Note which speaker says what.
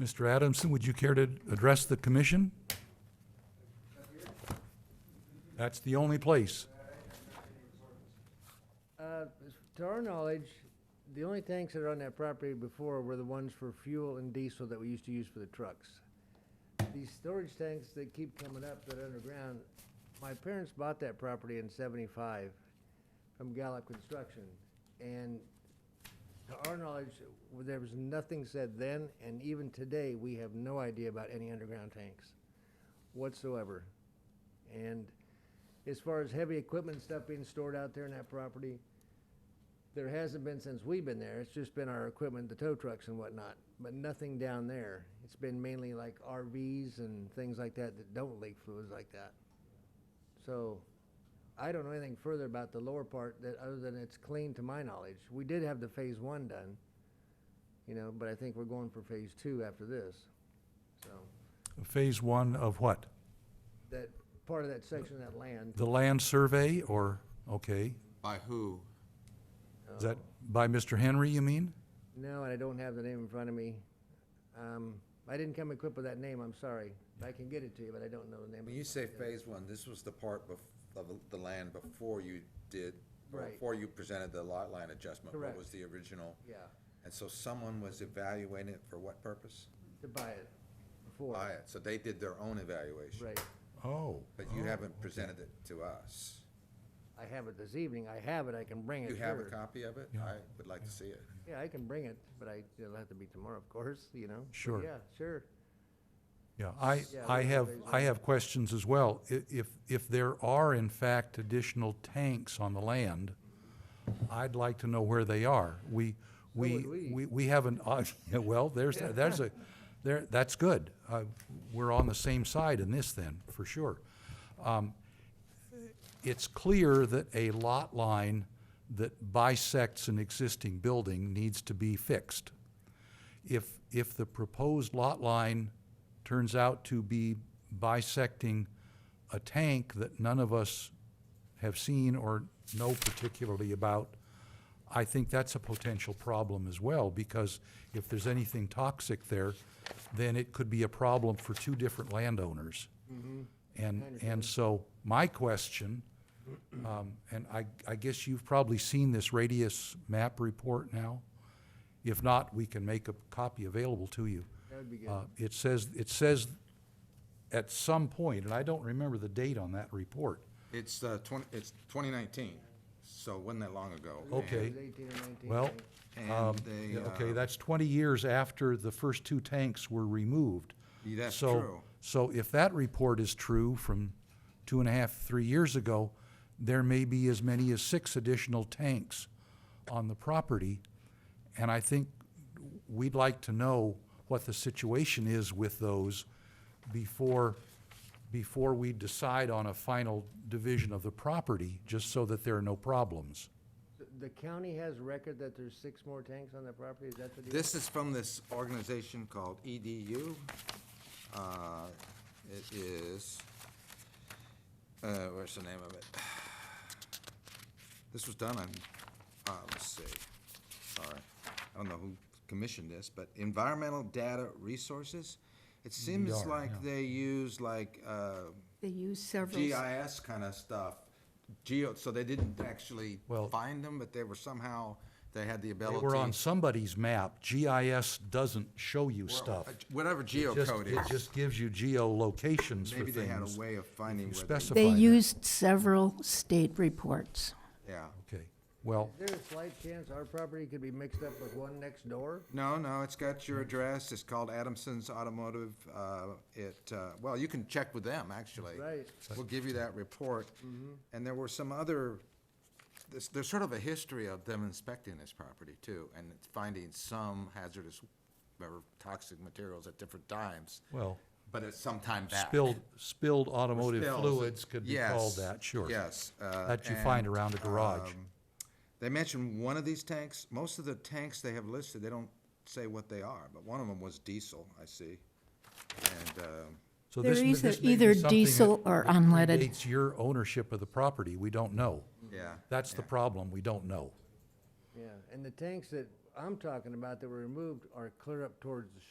Speaker 1: Mr. Adamson, would you care to address the commission? That's the only place.
Speaker 2: Uh, To our knowledge, the only tanks that are on that property before were the ones for fuel and diesel that we used to use for the trucks. These storage tanks that keep coming up that are underground, my parents bought that property in seventy-five from Gallup Construction. And to our knowledge, there was nothing said then, and even today, we have no idea about any underground tanks whatsoever. And as far as heavy equipment and stuff being stored out there in that property, there hasn't been since we've been there. It's just been our equipment, the tow trucks and whatnot, but nothing down there. It's been mainly like RVs and things like that that don't leak fluids like that. So I don't know anything further about the lower part that, other than it's clean to my knowledge. We did have the phase one done, you know, but I think we're going for phase two after this. So
Speaker 1: Phase one of what?
Speaker 2: that, part of that section of that land.
Speaker 1: The land survey or, okay,
Speaker 3: By who?
Speaker 1: is that by Mr. Henry, you mean?
Speaker 2: No, and I don't have the name in front of me. Um, I didn't come equipped with that name, I'm sorry. I can get it to you, but I don't know the name. of
Speaker 3: When
Speaker 2: it.
Speaker 3: you say phase one, this was the part bef- of the land before you did,
Speaker 2: Right.
Speaker 3: before you presented the lot line adjustment.
Speaker 2: Correct.
Speaker 3: What was the original?
Speaker 2: Yeah,
Speaker 3: And so someone was evaluating it for what purpose?
Speaker 2: to buy it before.
Speaker 3: Buy it. So they did their own evaluation.
Speaker 2: Right.
Speaker 1: Oh,
Speaker 3: But you haven't presented it to us.
Speaker 2: I have it this evening. I have it, I can bring it.
Speaker 3: You have a
Speaker 2: sure.
Speaker 3: copy of it? I would like to see it.
Speaker 2: Yeah, I can bring it, but I, it'll have to be tomorrow, of course, you know? But
Speaker 1: Sure.
Speaker 2: Yeah, sure.
Speaker 1: yeah, I,
Speaker 2: Yeah,
Speaker 1: I
Speaker 2: that's
Speaker 1: have,
Speaker 2: phase one.
Speaker 1: I have questions as well. I- If, if there are in fact additional tanks on the land, I'd like to know where they are. We, we,
Speaker 2: would we.
Speaker 1: we, we haven't, uh, yeah, well, there's, there's a, there, that's good. Uh, We're on the same side in this then, for sure. Um, It's clear that a lot line that bisects an existing building needs to be fixed. If, if the proposed lot line turns out to be bisecting a tank that none of us have seen or know particularly about, I think that's a potential problem as well, because if there's anything toxic there, then it could be a problem for two different landowners. And, and so my question, um, and I, I guess you've probably seen this radius map report now. If not, we can make a copy available to you.
Speaker 2: That would be good.
Speaker 1: Uh, It says, it says at some point, and I don't remember the date on that report.
Speaker 3: It's, uh, twenty, it's twenty nineteen, so wasn't that long ago.
Speaker 1: Okay.
Speaker 2: It was 18 or 19,
Speaker 1: Well,
Speaker 2: right?
Speaker 3: And
Speaker 1: um,
Speaker 3: they,
Speaker 1: yeah, okay,
Speaker 3: uh,
Speaker 1: that's 20 years after the first two tanks were removed.
Speaker 3: Yeah, that's
Speaker 1: So-
Speaker 3: true.
Speaker 1: So if that report is true from two and a half, three years ago, there may be as many as six additional tanks on the property. And I think we'd like to know what the situation is with those before, before we decide on a final division of the property, just so that there are no problems.
Speaker 2: The- The county has record that there's six more tanks on the property, is that the deal?
Speaker 3: This is from this organization called EDU. Uh, It is, uh, where's the name of it? This was done on, uh, let's see, sorry. I don't know who commissioned this, but Environmental Data Resources. It seems
Speaker 1: EDR,
Speaker 3: like they use like uh,
Speaker 4: They use several, s-
Speaker 3: GIS kind of stuff. Geo, so they didn't actually
Speaker 1: Well-
Speaker 3: find them, but they were somehow, they had the
Speaker 1: They
Speaker 3: ability.
Speaker 1: were on somebody's map. GIS doesn't show you stuff.
Speaker 3: Uh, Whatever
Speaker 1: Just-
Speaker 3: geocode
Speaker 1: It
Speaker 3: is,
Speaker 1: just gives you geolocations for
Speaker 3: maybe they had
Speaker 1: things.
Speaker 3: a way of finding
Speaker 1: You
Speaker 3: where they,
Speaker 1: specify
Speaker 4: they
Speaker 1: that.
Speaker 4: used several state reports.
Speaker 3: yeah.
Speaker 1: Okay, well,
Speaker 2: Is there a slight chance our property could be mixed up with one next door?
Speaker 3: No, no, it's got your address, it's called Adamson's Automotive, uh, it, uh, well, you can check with them, actually.
Speaker 2: Right.
Speaker 3: We'll give you that report. And there were some other, there's, there's sort of a history of them inspecting this property too, and finding some hazardous or toxic materials at different times,
Speaker 1: well,
Speaker 3: but at some time back.
Speaker 1: spilled, spilled
Speaker 3: Or
Speaker 1: automotive
Speaker 3: spills.
Speaker 1: fluids could be
Speaker 3: Yes,
Speaker 1: called that, sure.
Speaker 3: Yes. uh,
Speaker 1: That you find
Speaker 3: and,
Speaker 1: around a garage.
Speaker 3: um, They mentioned one of these tanks, most of the tanks they have listed, they don't say what they are, but one of them was diesel, I see. And, um,
Speaker 1: So
Speaker 4: They're
Speaker 1: this may-
Speaker 4: either-
Speaker 1: this may be
Speaker 4: either
Speaker 1: something
Speaker 4: diesel
Speaker 1: that-
Speaker 4: or
Speaker 1: that
Speaker 4: unleaded.
Speaker 1: predates your ownership of the property, we don't know.
Speaker 3: Yeah,
Speaker 1: That's the problem, we don't know.
Speaker 2: Yeah, and the tanks that I'm talking about that were removed are clear up towards the